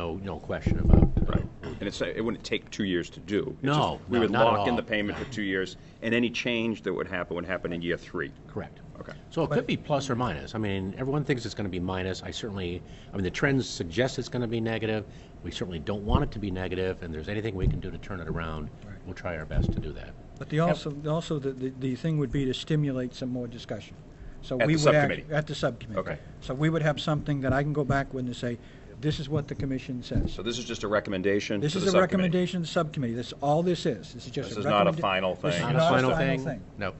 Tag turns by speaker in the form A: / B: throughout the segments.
A: no, no question about. uh,
B: Right. And it's, it wouldn't take two years to do. It's
A: No,
B: just- We
A: no,
B: would
A: not at
B: lock in
A: all.
B: the payment for two years, and any change that would happen would happen in year three.
A: Correct.
B: Okay.
A: So it could be plus or minus. I mean, everyone thinks it's going to be minus. I certainly, I mean, the trends suggest it's going to be negative. We certainly don't want it to be negative, and if there's anything we can do to turn it around, we'll try our best to do that.
C: But the also, also the, the, the thing would be to stimulate some more discussion. So
B: At
C: we
B: the
C: would act-
B: subcommittee.
C: At the subcommittee.
B: Okay.
C: So we would have something that I can go back with and say, this is what the commission says.
B: So this is just a recommendation to the
C: This is a
B: subcommittee.
C: recommendation to the subcommittee. That's all this is. This is just
B: This
C: a
B: is not a
C: recommenda-
B: final
C: This is
A: Not
B: thing.
A: a
C: not a final thing.
A: No.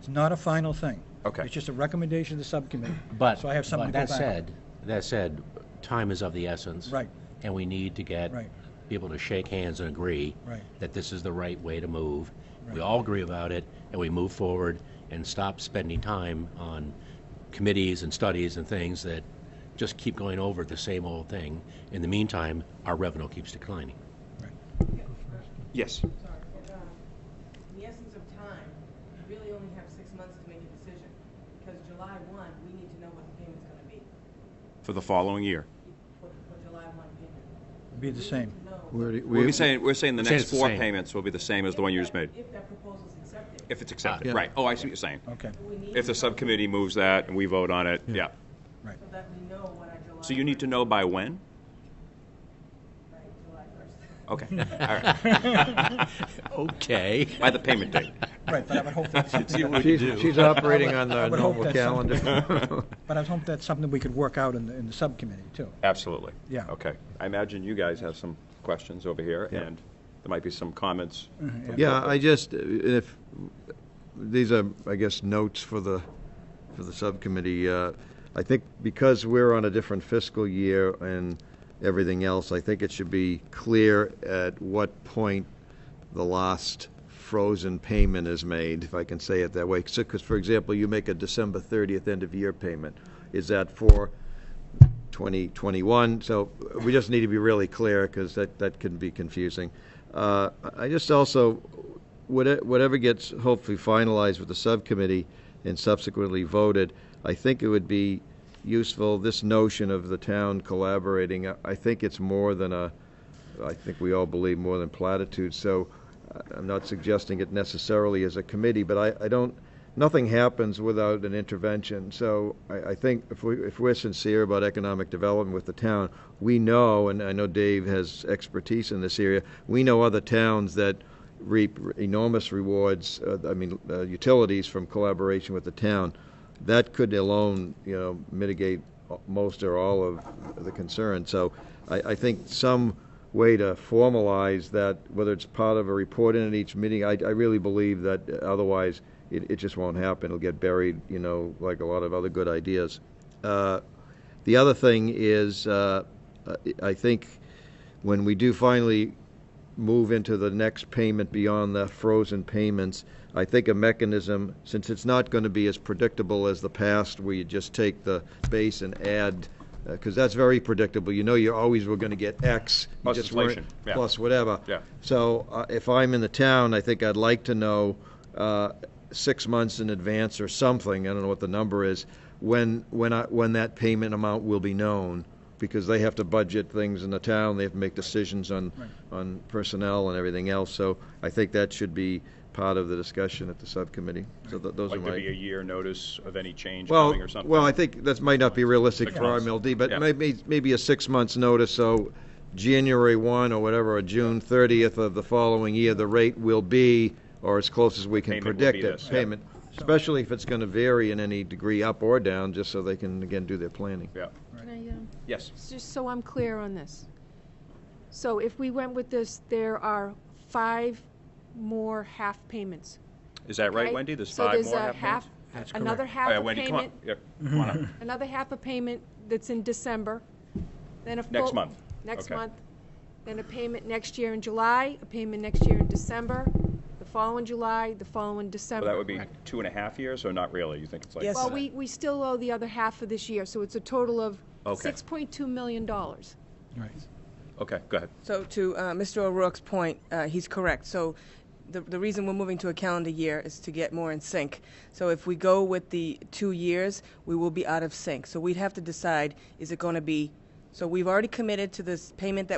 C: It's not a final thing.
B: Okay.
C: It's just a recommendation to the subcommittee.
A: But,
C: So I have something
A: but
C: to go back
A: that
C: on.
A: said, that said, time is of the essence.
C: Right.
A: And we need to get
C: Right.
A: people to shake hands and agree
C: Right.
A: that this is the right way to move. We all agree about it, and we move forward and stop spending time on committees and studies and things that just keep going over the same old thing. In the meantime, our revenue keeps declining.
B: Yes.
D: sorry, um, in the essence of time, you really only have six months to make a decision, because July one, we need to know what the payment's gonna be,
B: For the following year.
D: for, for July one payment.
C: It'd Be the same.
D: To know
E: We're-
B: We're saying, we're saying the
A: We're saying
B: next
A: it's the
B: four
A: same.
B: payments will be the same as the one you just made,
D: If that proposal's accepted.
B: if it's
E: Ah,
B: accepted,
E: yeah.
B: right? Oh, I see what you're saying.
C: Okay.
D: We need
B: If
D: to
B: the
D: know
B: subcommittee moves that and we vote on it, yeah.
D: So that we know what our July.
B: So you need to know by when?
D: Right, July first.
B: Okay, all right.
A: Okay.
B: By the payment date.
C: Right, but I would hope that's something that-
E: She's, she's operating on
C: I
E: the
C: would hope
E: normal
C: that's
E: calendar.
C: But I would hope that's something we could work out in the, in the subcommittee too.
B: Absolutely.
C: Yeah.
B: Okay. I imagine you guys have some questions over here,
E: Yeah.
B: and there might be some comments.
E: Yeah, I just, uh, if, these are, I guess, notes for the, for the subcommittee. Uh, I think because we're on a different fiscal year and everything else, I think it should be clear at what point the last frozen payment is made, if I can say it that way. Because, for example, you make a December 30th end-of-year payment. Is that for 2021. So we just need to be really clear because that, that can be confusing. Uh, I I just also, whate- whatever gets hopefully finalized with the subcommittee and subsequently voted, I think it would be useful, this notion of the town collaborating, I- I think it's more than a, I think we all believe more than platitudes. So I- I'm not suggesting it necessarily as a committee, but I, I don't, nothing happens without an intervention. So I, I think if we, if we're sincere about economic development with the town, we know, and I know Dave has expertise in this area, we know other towns that reap enormous rewards, uh, I mean, uh, utilities from collaboration with the town. That could alone, you know, mitigate most or all of the concern. So I, I think some way to formalize that, whether it's part of a report in at each meeting, I, I really believe that otherwise it, it just won't happen. It'll get buried, you know, like a lot of other good ideas. Uh, the other thing is, uh, I- I think when we do finally move into the next payment beyond the frozen payments, I think a mechanism, since it's not going to be as predictable as the past, where you just take the base and add, because that's very predictable. You know, you always were going to get X. you
B: Plus
E: just weren't-
B: inflation, yeah.
E: Plus whatever.
B: Yeah.
E: So uh, if I'm in the town, I think I'd like to know uh, six months in advance or something, I don't know what the number is, when, when, I, when that payment amount will be known, because they have to budget things in the town, they have to make decisions on, on personnel and everything else. So I think that should be part of the discussion at the subcommittee. So th- those are
B: Like
E: my.
B: there be a year notice of any change
E: Well,
B: coming or something?
E: well, I think that might not be realistic
B: Six
E: for
B: months.
E: RMLD,
B: Yeah.
E: but maybe, maybe a six months notice, so January one or whatever, or June thirtieth of the following year, the rate will be, or as close as we can
B: Payment will
E: predict
B: be
E: it.
B: this, yeah.
E: Payment, especially if it's gonna vary in any degree up or down, just so they can, again, do their planning.
B: Yeah.
F: Can I, um,
B: Yes.
F: just so I'm clear on this. So if we went with this, there are five more half payments.
B: Is that right,
F: okay?
B: Wendy? There's five more
F: So
B: half
F: there's a half,
B: payments?
F: another
B: Oh,
F: half
B: yeah,
F: a
B: Wendy, come on.
F: payment,
B: Yeah, come on up.
F: another half a payment that's in December, then a full.
B: Next month.
F: Next
B: Okay.
F: month, then a payment next year in July, a payment next year in December, the following July, the following December.
B: Well, that would be two and a half years, or not really? You think it's like?
G: Yes.
F: Well, we, we still owe the other half for this year, so it's a total of
B: Okay.
F: $6.2 million. dollars.
B: Okay, go ahead.
D: So to uh, Mr. O'Rourke's point, uh, he's correct. So the, the reason we're moving to a calendar year is to get more in sync. So if we go with the two years, we will be out of sync. So we'd have to decide, is it going to be, so we've already committed to this payment that